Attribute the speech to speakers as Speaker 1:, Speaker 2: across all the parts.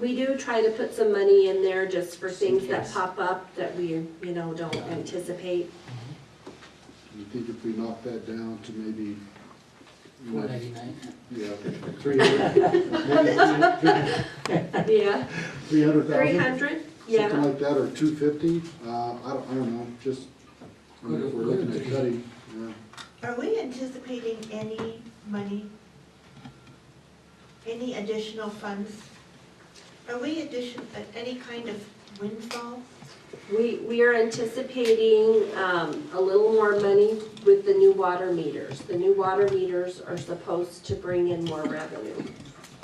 Speaker 1: we do try to put some money in there just for
Speaker 2: Just in
Speaker 1: things that
Speaker 2: case.
Speaker 1: pop up that we, you know, don't anticipate.
Speaker 3: You think if we knock that down to maybe,
Speaker 2: Four ninety-nine.
Speaker 3: yeah, three hundred,
Speaker 1: Yeah,
Speaker 3: three hundred
Speaker 1: three
Speaker 3: thousand?
Speaker 1: hundred,
Speaker 3: Something
Speaker 1: yeah.
Speaker 3: like that, or two fifty, uh, I don't, I don't know, just, I mean, if we're looking at cutting, yeah.
Speaker 4: Are we anticipating any money? Any additional funds? Are we addition, uh, any kind of windfall?
Speaker 1: We, we are anticipating, um, a little more money with the new water meters. The new water meters are supposed to bring in more revenue.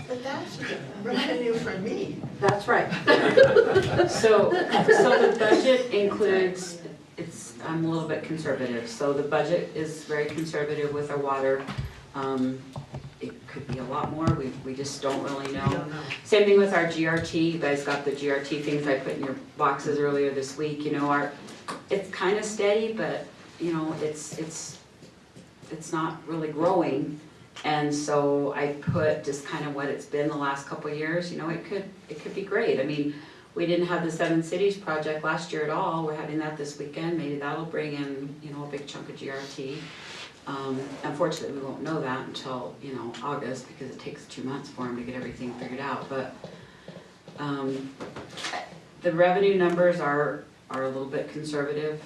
Speaker 4: But that's revenue for me.
Speaker 1: That's right.
Speaker 5: So, so the budget includes, it's, I'm a little bit conservative, so the budget is very conservative with our water. Um, It could be a lot more, we, we just don't really know. Same thing with our GRT, you guys got the GRT things I put in your boxes earlier this week, you know, our, it's kind of steady, but, you know, it's, it's, it's not really growing. And so I put just kind of what it's been the last couple of years, you know, it could, it could be great. I mean, we didn't have the Seven Cities project last year at all, we're having that this weekend, maybe that'll bring in, you know, a big chunk of GRT. Um, unfortunately, we won't know that until, you know, August, because it takes two months for them to get everything figured out, but, um, the revenue numbers are, are a little bit conservative,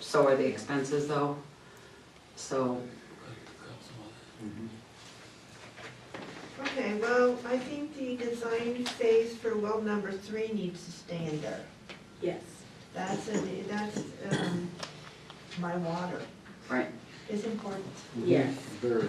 Speaker 5: so are the expenses though, so,
Speaker 3: Mm-hmm.
Speaker 4: Okay, well, I think the design phase for well number three needs to stay in there.
Speaker 1: Yes.
Speaker 4: That's, a- that's um, my water
Speaker 5: right.
Speaker 4: is important.
Speaker 1: Yes.
Speaker 3: Very,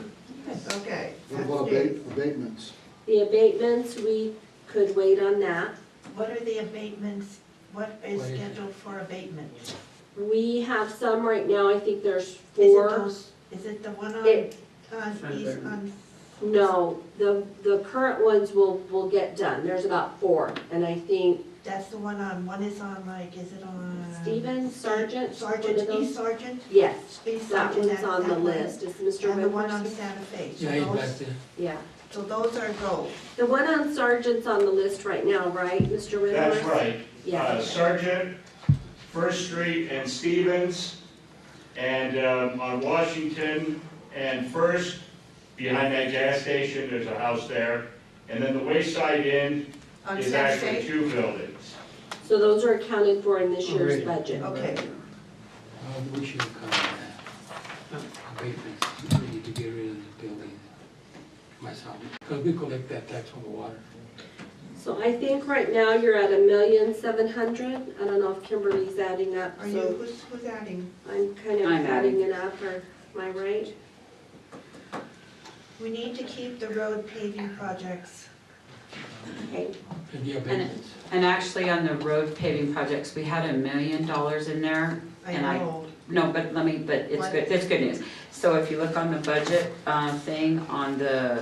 Speaker 4: Okay.
Speaker 3: what
Speaker 4: that
Speaker 3: about
Speaker 4: stays.
Speaker 3: abate, abatements?
Speaker 1: The abatements, we could wait on that.
Speaker 4: What are the abatements, what is
Speaker 2: What is it?
Speaker 4: scheduled for abatement? Is
Speaker 1: We have some right now, I think there's
Speaker 4: it
Speaker 1: four.
Speaker 4: those- Is it the one on,
Speaker 1: It-
Speaker 4: on east, on,
Speaker 1: No, the, the current ones will, will get done. There's about four. And I think
Speaker 4: that's the one on, one is on like, is it on?
Speaker 1: Stephen Sargent, one of
Speaker 4: Uh, Sergeant,
Speaker 1: those?
Speaker 4: East Sergeant?
Speaker 1: Yes,
Speaker 4: East
Speaker 1: that
Speaker 4: Sergeant,
Speaker 1: one's
Speaker 4: that-
Speaker 1: on the
Speaker 4: that one.
Speaker 1: list. It's Mr.
Speaker 4: And the one on
Speaker 1: Whitmer's.
Speaker 4: Santa Fe. So
Speaker 2: Yeah, he's
Speaker 4: those-
Speaker 2: back there.
Speaker 1: Yeah.
Speaker 4: So those are gold.
Speaker 1: The one on Sargent's on the list right now, right, Mr. Whitmer?
Speaker 6: That's right. Uh,
Speaker 1: Yeah.
Speaker 6: Sergeant, First Street and Stevens, and um, on Washington and First, behind that gas station, there's a house there. And then the Wayside Inn
Speaker 4: On
Speaker 6: is
Speaker 4: Santa
Speaker 6: actually
Speaker 4: Fe?
Speaker 6: two buildings.
Speaker 1: So those are accounted for in this year's
Speaker 2: Already.
Speaker 1: budget.
Speaker 4: Okay.
Speaker 2: Well, we should have covered that. Abatements, we need to get rid of the building myself, because we collect that tax on the water.
Speaker 1: So I think right now you're at a million seven hundred. I don't know if Kimberly's adding up,
Speaker 4: Are you,
Speaker 1: so
Speaker 4: who's, who's adding?
Speaker 1: I'm kind of
Speaker 5: I'm
Speaker 1: adding
Speaker 5: adding.
Speaker 1: it up, or am I right?
Speaker 4: We need to keep the road paving projects.
Speaker 1: Okay,
Speaker 2: And the abatements,
Speaker 5: And actually, on the road paving projects, we had a million dollars in there,
Speaker 4: I
Speaker 5: And I-
Speaker 4: know.
Speaker 5: No, but let me, but it's
Speaker 4: What?
Speaker 5: good, that's good news. So if you look on the budget uh, thing, on the, uh,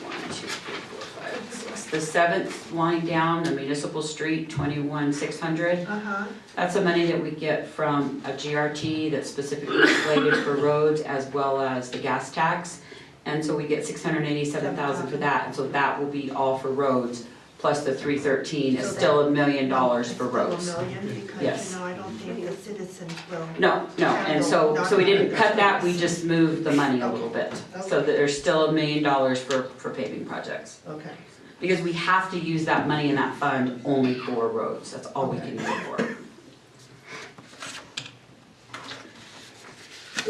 Speaker 5: one, two, three, four, five, six, the seventh line down, the municipal street, twenty-one, six hundred.
Speaker 4: Uh-huh.
Speaker 5: That's the money that we get from a GRT that's specifically slated for roads as well as the gas tax. And so we get six hundred and eighty-seven thousand for that, and so that will be all for roads, plus the three thirteen is
Speaker 4: So that-
Speaker 5: still a million dollars for roads.
Speaker 4: Still a million, because,
Speaker 5: Yes.
Speaker 4: you know, I don't think the citizens will.
Speaker 5: No, no, and so, so we didn't cut that, we just moved the money a little bit. So that there's still a million dollars for, for paving projects.
Speaker 4: Okay.
Speaker 5: Because we have to use that money in that fund only for roads, that's all we can use it for.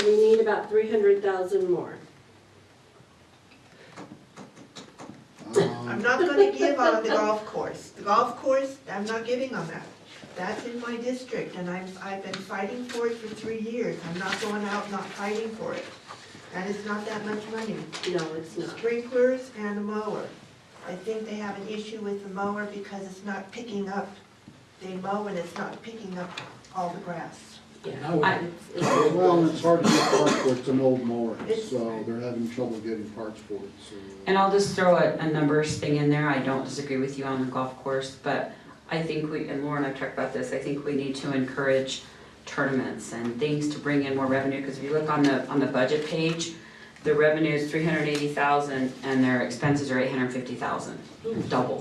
Speaker 1: so we need about three hundred thousand more.
Speaker 4: I'm
Speaker 3: Um,
Speaker 4: not gonna give on the golf course. The golf course, I'm not giving on that. That's in my district and I'm, I've been fighting for it for three years. I'm not going out not fighting for it. And it's not that much money.
Speaker 1: No, it's
Speaker 4: The
Speaker 1: not.
Speaker 4: Sprinklers and the mower. I think they have an issue with the mower because it's not picking up. They mow and it's not picking up all the grass.
Speaker 2: but
Speaker 1: Yeah.
Speaker 2: now we
Speaker 1: It's- it's-
Speaker 3: Well, it's hard to get parts for, it. it's an old mower,
Speaker 4: It's-
Speaker 3: so they're having trouble getting parts for it, so. uh,
Speaker 5: And I'll just throw a, a numbers thing in there, I don't disagree with you on the golf course, but I think we, and Lauren, I've talked about this, I think we need to encourage tournaments and things to bring in more revenue, because if you look on the, on the budget page, the revenue is three hundred eighty thousand and their expenses are eight hundred fifty thousand, double.